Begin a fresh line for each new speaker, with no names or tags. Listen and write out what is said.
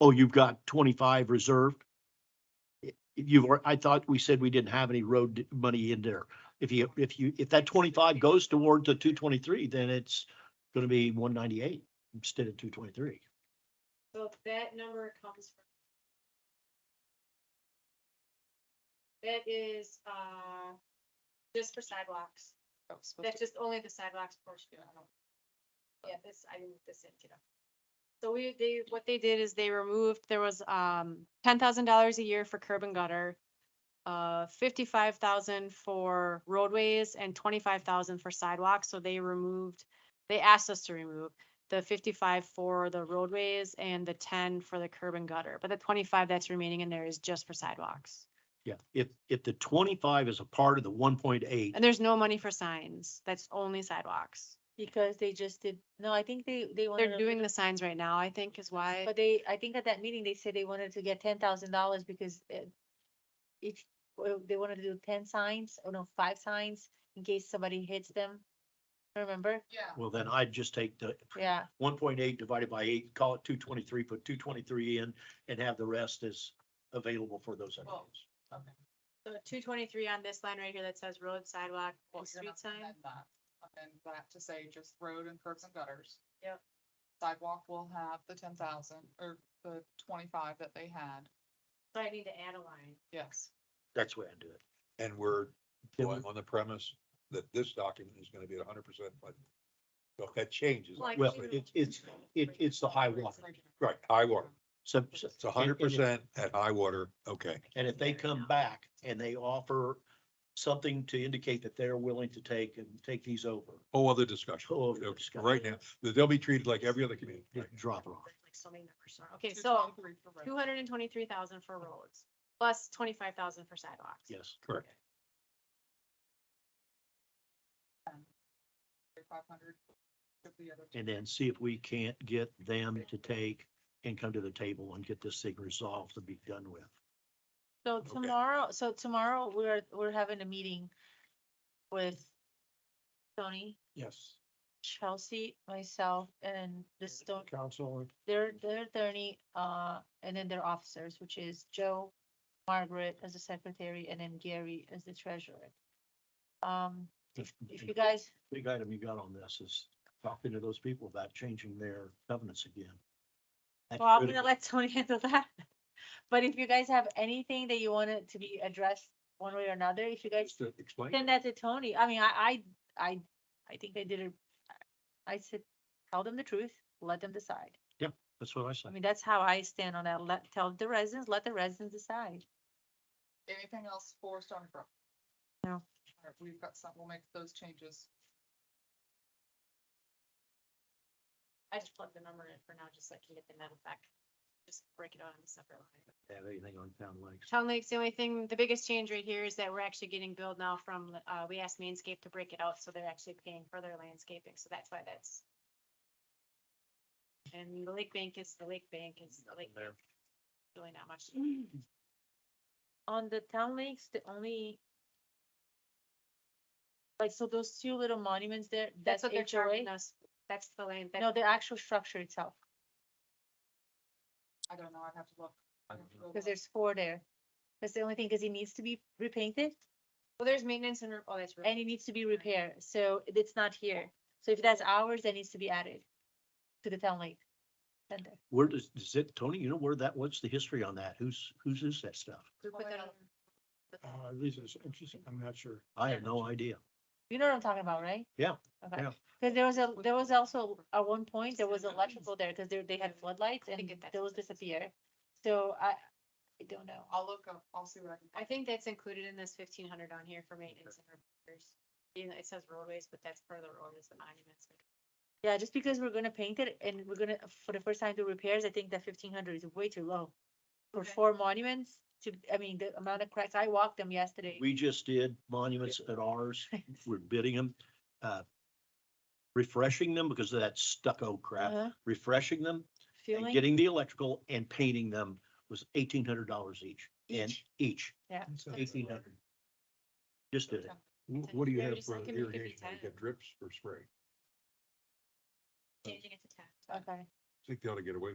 oh, you've got twenty-five reserved? If You've, al- I thought we said we didn't have any road d- money in there. If you, if you, if that twenty-five goes toward the two twenty-three, then it's gonna be one ninety-eight instead of two twenty-three.
So if that number comes from. That is, uh, just for sidewalks. That's just only the sidewalks portion. I don't- Yeah, this, I didn't, this didn't get up. So we, they, what they did is they removed, there was, um, ten thousand dollars a year for curb and gutter. Uh, fifty-five thousand for roadways and twenty-five thousand for sidewalks, so they removed, they asked us to remove. The fifty-five for the roadways and the ten for the curb and gutter, but the twenty-five that's remaining in there is just for sidewalks.
Yeah, if, if the twenty-five is a part of the one point eight,
And there's no money for signs, that's only sidewalks.
Because they just did, no, I think they, they wanted.
They're
to-
doing the signs right now, I think is why.
But they, I think at that meeting, they said they wanted to get ten thousand dollars because uh, each, well, they wanted to do ten signs, or no, five signs in case somebody hits them. Remember?
well, then I'd just take the
Yeah,
one point eight divided by eight, call it two twenty-three, put two twenty-three in and have the rest as available for those
Well,
items.
So two twenty-three on this line right here that says road sidewalk, and street sign.
And that to say just road and curbs and gutters.
Yep.
Sidewalk will have the ten thousand or the twenty-five that they had,
So I need to add a line.
yes.
That's the way I do it.
And we're
Then
going on the premise that this document is gonna be a hundred percent funded. So if that changes,
Like-
Well,
Actually,
it's, it's, it, it's the high water.
right, high water,
So, so-
it's a
and-
hundred
and if-
percent at high water, okay.
And if they come back and they offer something to indicate that they're willing to take and take these over,
Whole other discussion.
Whole other
Okay,
discussion.
Right now, they'll be treated like every other community. right?
just drop it off.
Like so many numbers are- Okay, so
223 for road.
two hundred and twenty-three thousand for roads, plus twenty-five thousand for sidewalks.
Yes.
Correct.
Five hundred with the other two.
And then see if we can't get them to take and come to the table and get this thing resolved and be done with.
so tomorrow, so tomorrow, we're, we're having a meeting with Tony,
Yes.
Chelsea, myself, and the Stone,
Council.
their, their attorney, uh, and then their officers, which is Joe, Margaret as the secretary, and then Gary as the treasurer. Um, if you guys,
Big item you got on this is talking to those people about changing their covenants again. That's
well, I'm gonna
critical.
let Tony handle that. But if you guys have anything that you wanted to be addressed one way or another, if you guys
Just to explain.
send that to Tony, I mean, I, I, I, I think I did it. I said, tell them the truth, let them decide.
That's what I
I
said.
mean, that's how I stand on that. Let, tell the residents, let the residents decide.
Anything else for Stony Brook?
No.
All right, We've got some, we'll make those changes.
I just plugged the number in for now, just so I can get the net effect. Just break it out on a separate line.
Have anything on town lakes?
Town Lake's the only thing, the biggest change right here is that we're actually getting billed now from, uh, we asked Mainscape to break it out, so they're actually paying for their landscaping, so that's why that's. And the lake bank is, the lake bank is, the lake,
There.
really not much.
On the town lakes, the only. Like, so those two little monuments there,
That's what they're charging
HOA?
us, that's the land, that,
No, the actual structure itself,
I don't know, I'd have to look. I'd have to go
because
look.
there's four there. That's the only thing, because it needs to be repainted
well, there's maintenance and, re- oh, that's.
and it needs to be repaired, so it's not here. So if that's ours, that needs to be added to the town lake. center.
Where does, does it, Tony, you know where that, what's the history on that? Who's, whose is that stuff?
we put that on-
Uh, this is interesting, I'm not sure.
I have no idea.
You know what I'm talking about, right?
Yeah,
Okay,
yeah.
because there was a, there was also, at one point, there was electrical there, because they, they had floodlights
I think
and
it- that's what
those
it is.
disappeared. So I, I don't know.
I'll look up, I'll see what I can.
I think that's included in this fifteen hundred on here for maintenance and repairs. You know, it says roadways, but that's part of the road is the monuments.
Yeah, just because we're gonna paint it and we're gonna, for the first time do repairs, I think that fifteen hundred is way too low. For
Okay.
four monuments to, I mean, the amount of cracks, I walked them yesterday.
We just did monuments at ours. We're bidding them, uh, refreshing them because of that stucco crap,
Uh-huh,
refreshing them and
Feeling,
getting the electrical and painting them was eighteen hundred dollars each. And
Each?
each,
So-
eighteen hundred. Just did it.
Wh- What do you
They're
have
just
for
like, "Give me- give me
irrigation? You
10."
got drips or spray?
Changing it to ten.
okay.
I think they ought to get away